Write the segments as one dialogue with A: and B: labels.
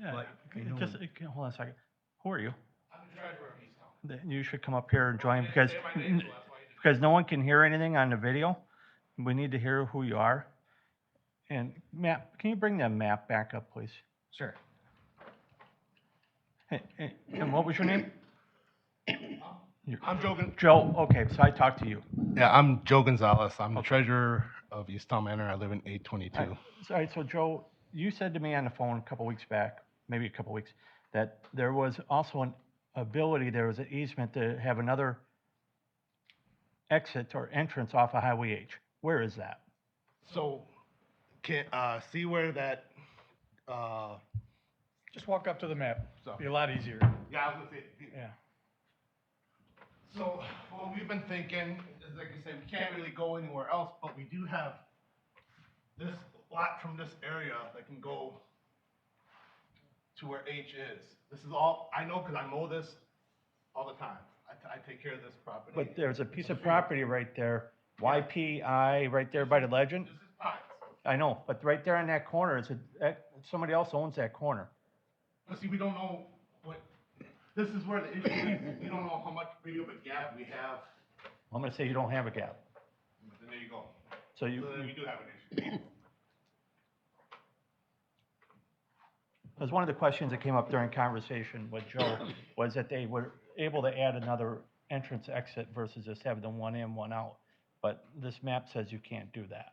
A: Yeah,
B: Like, you know,
A: just
B: when-
A: uh, hold on a second. Who are you?
C: I'm the treasurer of East Town.
A: Th- You should come up here and join because
C: Say my
A: n-
C: name, so that's why you did.
A: because no one can hear anything on the video. We need to hear who you are. And Matt, can you bring that map back up, please?
B: Sure.
A: Hey, hey, And what was your name? Your-
C: I'm joking.
A: Joe, okay, so I talked to you.
C: Yeah, I'm Joe Gonzalez. I'm the treasurer of East Town Manor. I live in eight twenty-two.
A: All right, so Joe, you said to me on the phone a couple weeks back, maybe a couple weeks, that there was also an ability, there was an easement to have another exit or entrance off of Highway H. Where is that?
C: So, can, uh, see where that, uh,
B: Just walk up to the map.
C: So-
B: Be a lot easier.
C: yeah, I was gonna say,
B: Yeah.
C: So what we've been thinking is, like I said, we can't really go anywhere else, but we do have this lot from this area that can go to where H is. This is all, I know because I mow this all the time. I, t- I take care of this property.
A: But there's a piece of property right there, YPI, right there by the legend.
C: This is pines.
A: I know, but right there on that corner, it's a, that- somebody else owns that corner.
C: But see, we don't know what, this is where the issue is. We don't know how much big of a gap we have.
A: I'm gonna say you don't have a gap.
C: And there you go.
A: So you,
C: So then we do have an issue.
A: Because one of the questions that came up during conversation with Joe was that they were able to add another entrance exit versus just having the one in, one out. But this map says you can't do that.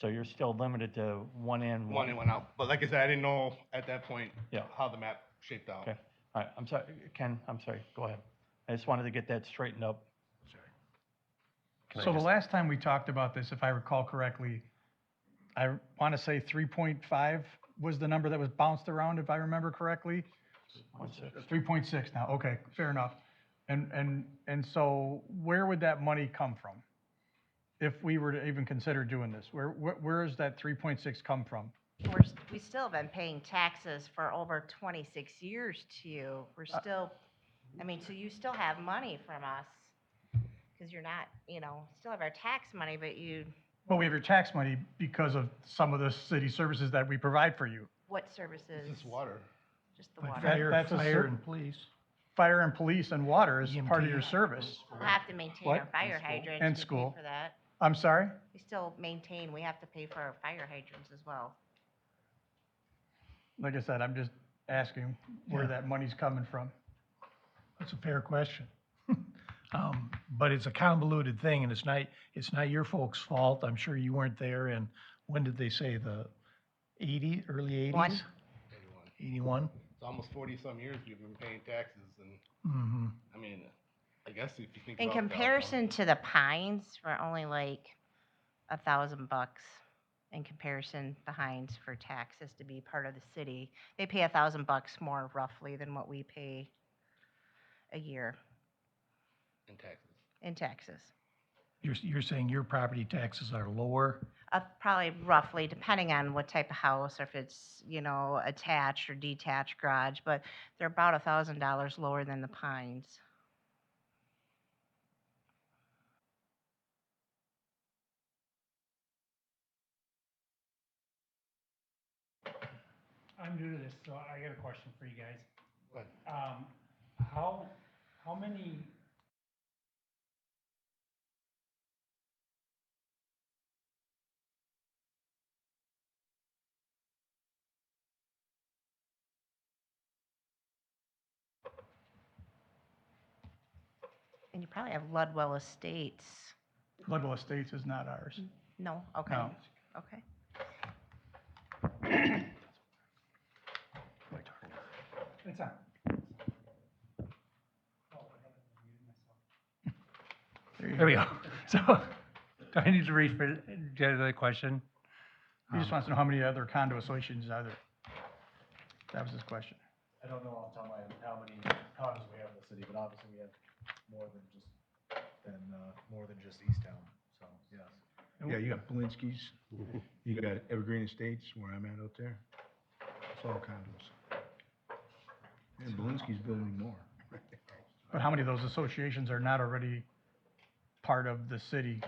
A: So you're still limited to one in,
C: One
A: one.
C: in, one out. But like I said, I didn't know at that point
A: Mm-hmm. Yeah.
C: how the map shaped out.
A: Okay, all right, I'm sorry, Ken, I'm sorry, go ahead. I just wanted to get that straightened up.
B: So the last time we talked about this, if I recall correctly, I want to say 3.5 was the number that was bounced around, if I remember correctly.
A: One sec.
B: 3.6 now, okay, fair enough. And, and, and so where would that money come from? If we were to even consider doing this, where, where, where does that 3.6 come from?
D: We're, s- we still have been paying taxes for over 26 years to you. We're
B: Uh,
D: still, I mean, so you still have money from us. Because you're not, you know, still have our tax money, but you,
B: Well, we have your tax money because of some of the city services that we provide for you.
D: what services?
C: It's just water.
D: Just the water.
B: Fire, fire and police. E Fire and police and water is part of your service.
D: We'll have to maintain
B: What?
D: our fire hydrants.
B: And
D: We pay
B: school.
D: For that.
B: I'm sorry?
D: We still maintain, we have to pay for our fire hydrants as well.
B: Like I said, I'm just asking where that money's coming from.
E: That's a fair question. Um, But it's a convoluted thing, and it's not, it's not your folks' fault. I'm sure you weren't there, and when did they say, the 80, early 80s?
D: One.
E: 81?
C: It's almost forty some years we've been paying taxes and,
E: Mm-hmm.
C: I mean, I guess if you think about
D: In
C: it,
D: comparison to the Pines, we're only like a thousand bucks in comparison behind for taxes to be part of the city. They pay a thousand bucks more roughly than what we pay a year
C: In taxes.
D: in taxes.
E: You're, you're saying your property taxes are lower?
D: Uh, probably roughly, depending on what type of house, or if it's, you know, attached or detached garage, but they're about a thousand dollars lower than the Pines.
F: I'm new to this, so I got a question for you guys.
C: Go ahead.
F: Um, how, how many
D: And you probably have Ludwell Estates.
B: Ludlow Estates is not ours.
D: No, okay,
B: No.
E: Oh.
D: okay.
F: It's on. Oh,
E: There we go. So,
G: Do I need to read for, get another question?
B: He just wants to know how many other condo associations are there. That was his question.
H: I don't know off the top of my head how many condos we have in the city, but obviously we have more than just, than, uh, more than just East Town, so, yes.
I: Yeah, you got Polinsky's, you got Evergreen Estates, where I'm at out there. It's all condos. And Polinsky's building more.
B: But how many of those associations are not already part of the city